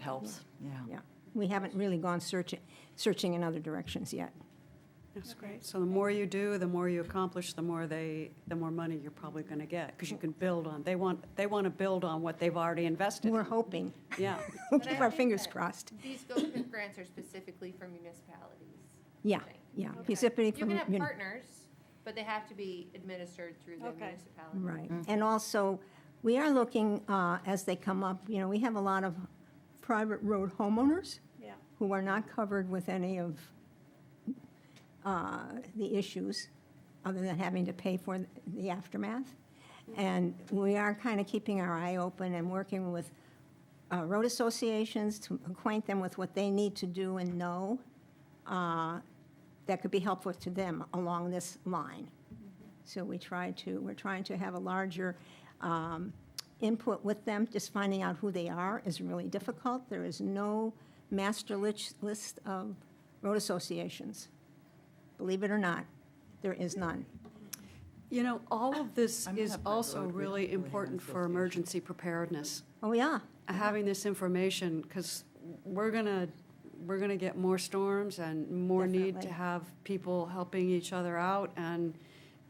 helps, yeah. Yeah, we haven't really gone searching, searching in other directions yet. That's great. So the more you do, the more you accomplish, the more they, the more money you're probably going to get, because you can build on, they want, they want to build on what they've already invested. We're in. hoping, Yeah, we'll But I keep our think fingers that- crossed. These GOPIP grants are specifically for municipalities. Yeah, I think. yeah. Okay. Specifically for You can mun- have partners, but they have to be administered through the Okay. municipality. Right, and also, we are looking, uh, as they come up, you know, we have a lot of private road homeowners Yeah. who are not covered with any of uh, the issues, other than having to pay for the aftermath. And we are kind of keeping our eye open and working with uh, road associations to acquaint them with what they need to do and know uh, that could be helpful to them along this line. So we try to, we're trying to have a larger um, input with them. Just finding out who they are is really difficult. There is no master lich- list of road associations. Believe it or not, there is none. you know, all of this I'm is happy also about it. We really don't really have important an for association. emergency preparedness. Oh, yeah, having this information, because we're gonna, we're gonna get more storms and more need to Definitely. have people helping each other out, and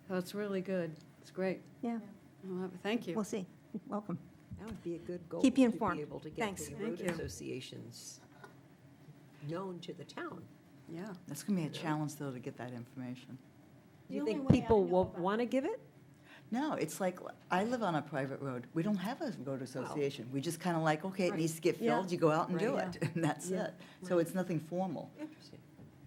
so it's really good. It's great. yeah, Well, Thank you. we'll see. Welcome. That would be a good goal. Keep you informed. To be able to get Thanks. the Thank road you. associations known to the town. Yeah. That's gonna be a challenge, though, to get that information. The Do you only think way I people know will about want to give it? No, it's like, I live on a private road. We don't have a road association. We just kind of like, okay, it needs to get Yeah. filled, you go out and do Right. it, and that's Yeah. it. So it's nothing formal. Interesting.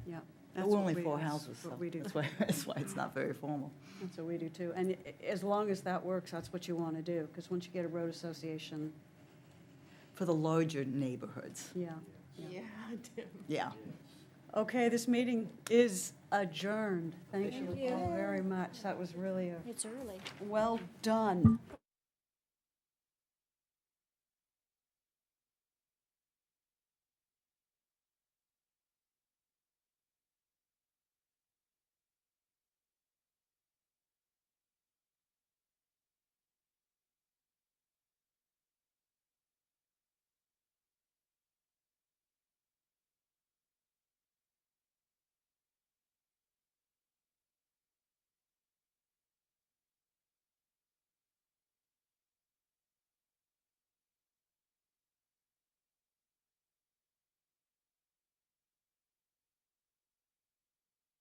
Yeah. But that's We're what only we- four that's houses, so What we do. that's why, that's why it's not very formal. That's what we do too. And i- as long as that works, that's what you want to do, because once you get a road association, For the larger neighborhoods, yeah. Yeah, Tim. yeah. Okay, this meeting is adjourned. Thank Thank you you. all very much. That was really a It's early. well done.